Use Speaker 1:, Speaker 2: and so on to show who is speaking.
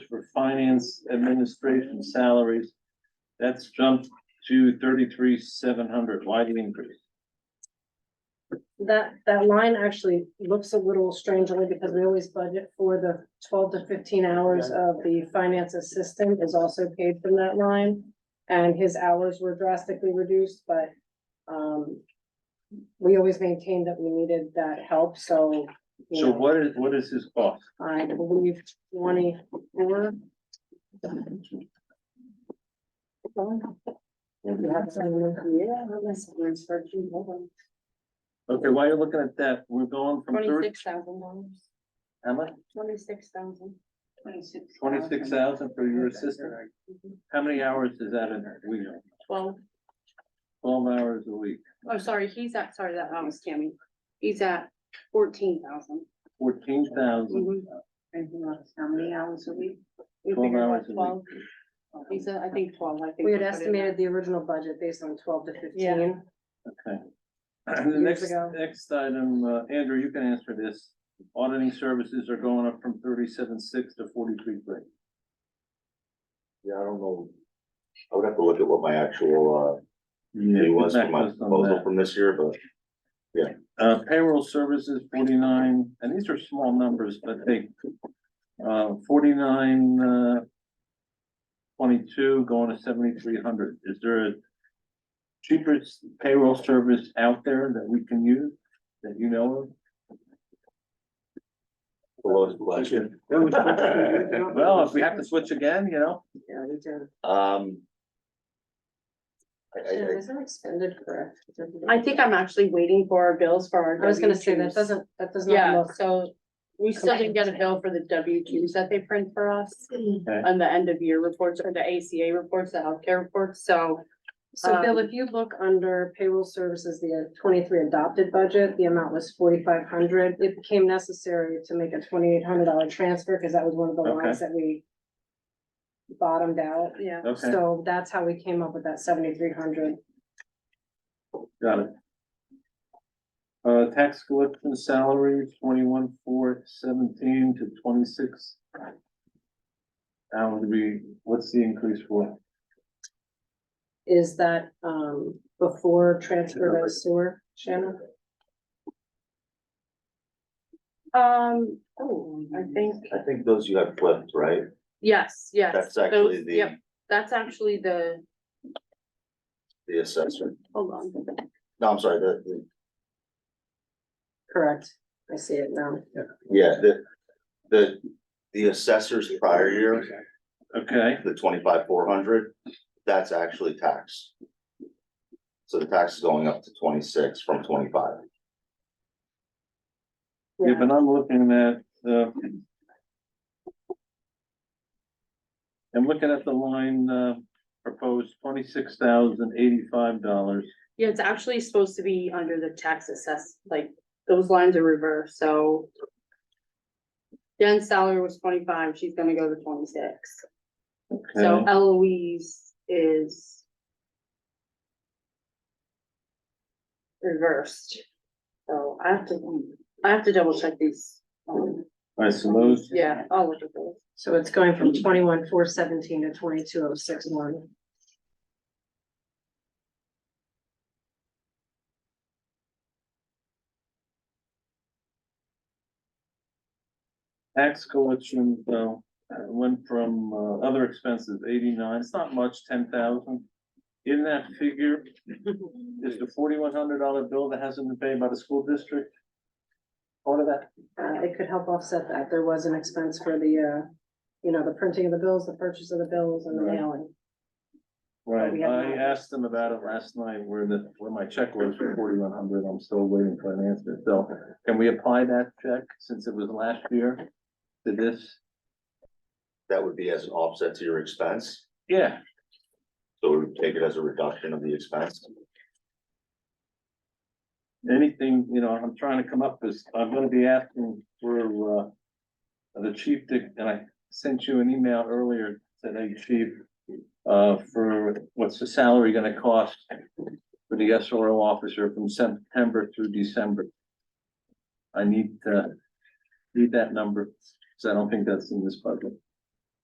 Speaker 1: finance administration salaries, that's jumped to thirty-three, seven hundred, why the increase?
Speaker 2: That, that line actually looks a little strangely because we always budget for the twelve to fifteen hours of the finance assistant is also paid from that line. And his hours were drastically reduced, but, um, we always maintained that we needed that help, so. you
Speaker 1: So
Speaker 2: know,
Speaker 1: what is, what is his cost?
Speaker 2: I believe twenty-four.
Speaker 1: Okay, while you're looking at that, we're going from thirty,
Speaker 3: Twenty-six thousand dollars,
Speaker 1: how much?
Speaker 3: twenty-six thousand.
Speaker 1: Twenty-six thousand for your assistant? How many hours is that in a week?
Speaker 3: Twelve,
Speaker 1: Twelve hours a week,
Speaker 3: oh, sorry, he's at, sorry, that
Speaker 2: um,
Speaker 3: was Tammy, he's at fourteen thousand.
Speaker 1: fourteen thousand,
Speaker 2: Mm-hmm.
Speaker 3: And he lost how many hours a week? Mhm. We
Speaker 1: Twelve
Speaker 3: figured
Speaker 1: hours
Speaker 3: about
Speaker 1: a week.
Speaker 3: twelve. He said, I think twelve, I think.
Speaker 2: We had
Speaker 3: put in
Speaker 2: estimated the original budget based on twelve to fifteen.
Speaker 3: Yeah.
Speaker 1: okay. The
Speaker 2: Years
Speaker 1: next,
Speaker 2: ago.
Speaker 1: next item, uh, Andrew, you can answer this. Auditing services are going up from thirty-seven, six to forty-three, three.
Speaker 4: Yeah, I don't know. I would have to look at what my actual, uh, fee was for my proposal from this year, but
Speaker 1: Uh, payroll services, forty-nine, and these are small numbers, but they, uh, forty-nine, uh, twenty-two going to seventy-three hundred. Is there a cheapest payroll service out there that we can use, that you know of?
Speaker 4: the lowest last year.
Speaker 1: Well, if we have to switch again, you know,
Speaker 2: Yeah, we did.
Speaker 4: Um. I, I, I,
Speaker 2: Is that expended correct?
Speaker 3: I think I'm actually waiting for our bills for our.
Speaker 2: I was gonna say, that
Speaker 3: W-2s.
Speaker 2: doesn't, that does not
Speaker 3: Yeah,
Speaker 2: look,
Speaker 3: so we still didn't get a bill for the W twos that they print for us. On the end of year reports or the ACA reports, the healthcare reports, so.
Speaker 2: so Bill,
Speaker 3: um,
Speaker 2: if you look under payroll services, the uh, twenty-three adopted budget, the amount was forty-five hundred. It became necessary to make a twenty-eight hundred dollar transfer, because that was one of the
Speaker 1: Okay.
Speaker 2: lines that we bottomed out,
Speaker 3: Yeah.
Speaker 1: okay,
Speaker 2: so that's how we came up with that seventy-three hundred.
Speaker 1: got it. Uh, tax collection salary, twenty-one, four, seventeen to twenty-six. That would be, what's the increase for?
Speaker 2: Is that, um, before transfer to sewer, Shannon?
Speaker 3: Um, oh, I think,
Speaker 4: I think those you have flipped, right?
Speaker 3: yes, yes.
Speaker 4: That's actually
Speaker 3: those-
Speaker 4: the-
Speaker 3: Yep, that's actually the,
Speaker 4: The assessment.
Speaker 3: hold on,
Speaker 4: No, I'm sorry, the, the,
Speaker 2: Correct, I see it now.
Speaker 4: yeah, the, the, the assessor's prior year,
Speaker 1: Okay,
Speaker 4: the twenty-five, four hundred, that's actually tax. So the tax is going up to twenty-six from twenty-five.
Speaker 1: yeah, but I'm looking at, uh. I'm looking at the line, uh, proposed twenty-six thousand eighty-five dollars.
Speaker 3: yeah, it's actually supposed to be under the tax assess, like, those lines are reversed, so. Jen's salary was twenty-five, she's gonna go to twenty-six. So
Speaker 1: Okay,
Speaker 3: Eloise is. Reversed. So I have to, I have to double check these. um,
Speaker 1: I suppose,
Speaker 3: Yeah, I'll look at those.
Speaker 2: So it's going from twenty-one, four seventeen to twenty-two oh six one.
Speaker 1: tax collection, though, uh, went from, uh, other expenses, eighty-nine, it's not much, ten thousand. In that figure, is the forty-one hundred dollar bill that hasn't been paid by the school district? Part of that,
Speaker 2: Uh, it could help offset that. There was an expense for the, uh, you know, the printing of the bills, the purchase of the bills and the
Speaker 1: Right.
Speaker 2: mailing. But
Speaker 1: right,
Speaker 2: we have
Speaker 1: I
Speaker 2: not.
Speaker 1: asked them about it last night, where the, where my check was for forty-one hundred, I'm still waiting for an answer, so. Can we apply that check, since it was last year, to this?
Speaker 4: That would be as an offset to your expense,
Speaker 1: Yeah,
Speaker 4: so we would take it as a reduction of the expense.
Speaker 1: anything, you know, I'm trying to come up with, I'm gonna be asking for, uh, the chief, to- and I sent you an email earlier today, chief, uh, for what's the salary gonna cost for the SRO officer from September through December? I need, uh, need that number, because I don't think that's in this budget.